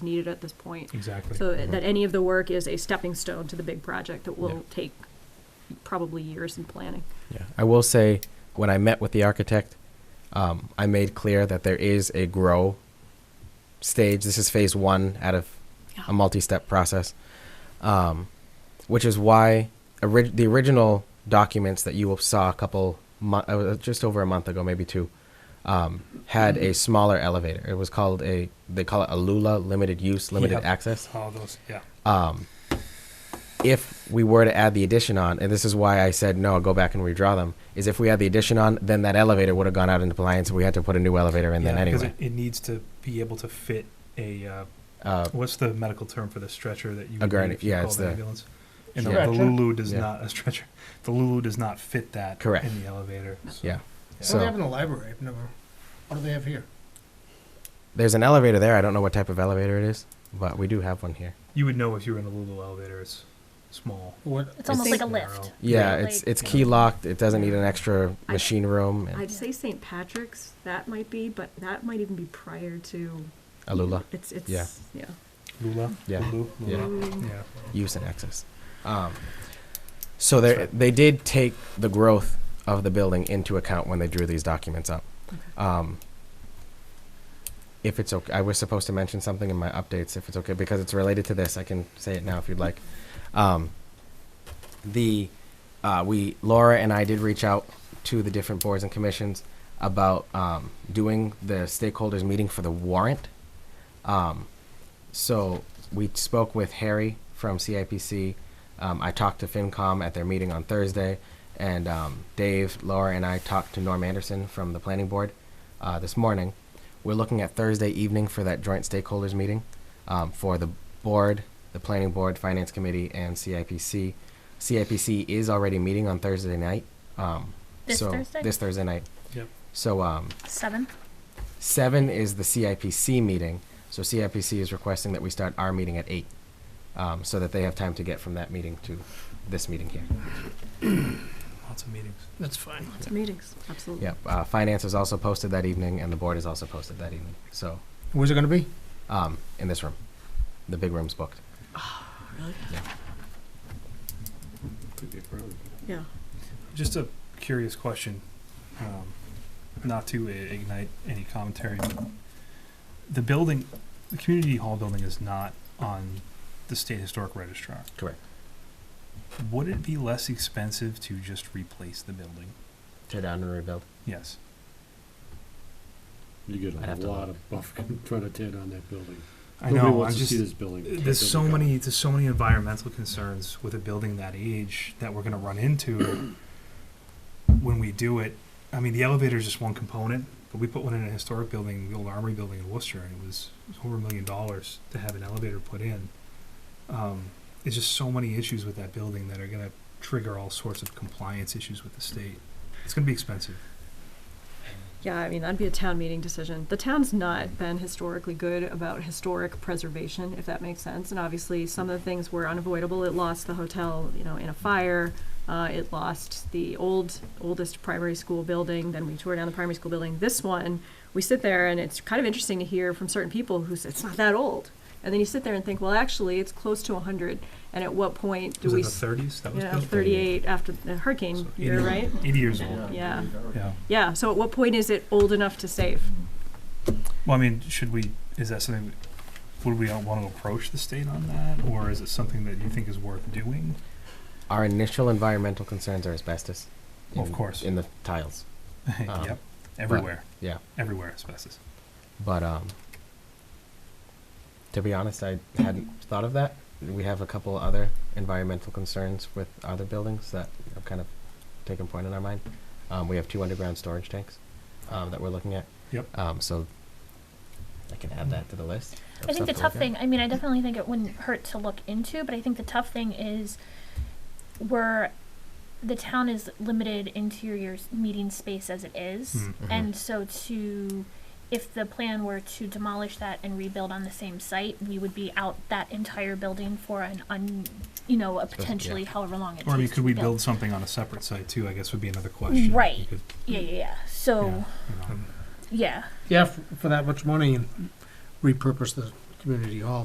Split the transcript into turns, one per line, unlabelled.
needed at this point.
Exactly.
So that any of the work is a stepping stone to the big project that
Uh-huh. Yeah.
will take probably years in planning.
Yeah, I will say when I met with the architect, um, I made clear that there is a grow stage. This is phase one out of a multi-step process, um, which is why orig- the original documents that you saw a couple mo- uh, just over a month ago, maybe two, um, had a smaller elevator. It was called a they call it a Lula, limited use, limited
Yep.
access
All those, yeah.
um, if we were to add the addition on, and this is why I said no, go back and redraw them, is if we had the addition on, then that elevator would have gone out into compliance, and we had to put a new elevator in
yeah,
then
'cause
anyway.
It, it needs to be able to fit a, uh,
Uh,
what's the medical term for the stretcher that you
A
would
gurney,
need if you
yeah,
called
it's
an
the-
ambulance? And the the
Stretcher.
Lulu does
Yeah.
not, a stretcher, the Lulu does not fit that
Correct.
in the elevator. so-
Yeah.
What do they have
so
in the library? I've never. What do they have here?
there's an elevator there. I don't know what type of elevator it is, but we do have one here.
You would know if you were in a Lulu elevator, it's small.
What?
It's almost
It's-
like a lift.
Narrow.
Yeah,
Like-
it's it's key locked. It doesn't need an extra
I-
machine room. And
I'd say St. Patrick's, that might be, but that might even be prior to.
Alula
It's, it's,
Yeah.
yeah.
Lula?
Yeah.
Lulu?
Yeah.
Lula?
Mm.
Yeah.
use and access. Um, so they
That's right.
they did take the growth of the building into account when they drew these documents up. Um, if it's okay, I was supposed to mention something in my updates. If it's okay, because it's related to this, I can say it now if you'd like. Um, the uh, we Laura and I did reach out to the different boards and commissions about um, doing the stakeholders meeting for the warrant. Um, so we spoke with Harry from CIPC. Um, I talked to FinCom at their meeting on Thursday, and um, Dave, Laura, and I talked to Norm Anderson from the Planning Board uh, this morning. We're looking at Thursday evening for that joint stakeholders meeting um, for the board, the Planning Board, Finance Committee, and CIPC. CIPC is already meeting on Thursday night. Um,
This
so
Thursday?
This Thursday night.
Yep.
So um,
Seven.
Seven is the CIPC meeting, so CIPC is requesting that we start our meeting at eight, um, so that they have time to get from that meeting to this meeting here.
Lots of meetings.
That's fine.
Lots of meetings, absolutely.
Yep, uh, finance is also posted that evening, and the board is also posted that evening, so,
Where's it going to be?
um, in this room. The big room's booked.
Yeah.
Just a curious question, um, not to i- ignite any commentary. but The building, the community hall building is not on the state historic registrar.
Correct.
Would it be less expensive to just replace the building?
Tear down and rebuild.
Yes.
You
I'd have
get
to
a lot
look.
of buff trying to tear down that building.
I
Nobody
know, I'm
wants to see
just,
this building. tear
there's
down
so
the building.
many, there's so many environmental concerns with a building that age that we're gonna run into when we do it. I mean, the elevator is just one component, but we put one in a historic building, the old Armory building in Worcester, and it was over a million dollars to have an elevator put in. Um, there's just so many issues with that building that are gonna trigger all sorts of compliance issues with the state. It's gonna be expensive.
Yeah, I mean, that'd be a town meeting decision. The town's not been historically good about historic preservation, if that makes sense. And obviously, some of the things were unavoidable. It lost the hotel, you know, in a fire. Uh, it lost the old, oldest primary school building. Then we tore down the primary school building. This one, we sit there and it's kind of interesting to hear from certain people who say, it's not that old. And then you sit there and think, well, actually, it's close to 100. And at what point do
Was
we,
it the thirties? That was
you know,
built?
38 after the hurricane
So
year,
80
right?
Eighty years old,
Yeah.
yeah.
Yeah, so at what point is it old enough to save?
Well, I mean, should we, is that something, would we want to approach the state on that, or is it something that you think is worth doing?
Our initial environmental concerns are asbestos.
Of
in-
course.
In the tiles, Um,
Yep, everywhere,
yeah,
everywhere asbestos.
but, um, to be honest, I hadn't thought of that. We have a couple other environmental concerns with other buildings that have kind of taken point in our mind. Um, we have two underground storage tanks um, that we're looking at.
Yep.
Um, so I can add that to the list. of
I think
stuff
the
to
tough
look at.
thing, I mean, I definitely think it wouldn't hurt to look into, but I think the tough thing is where the town is limited into your meeting space as it is.
Hmm.
Mm-hmm.
And so to, if the plan were to demolish that and rebuild on the same site, we would be out that entire building for an un, you know, a
yeah.
potentially however long it takes
Or I mean, could
to
we build something on a separate site too, I guess would be another question. You
Right.
could,
Yeah, yeah, yeah.
you know,
So,
you know,
yeah.
Yeah, for, for that much money and repurpose the community hall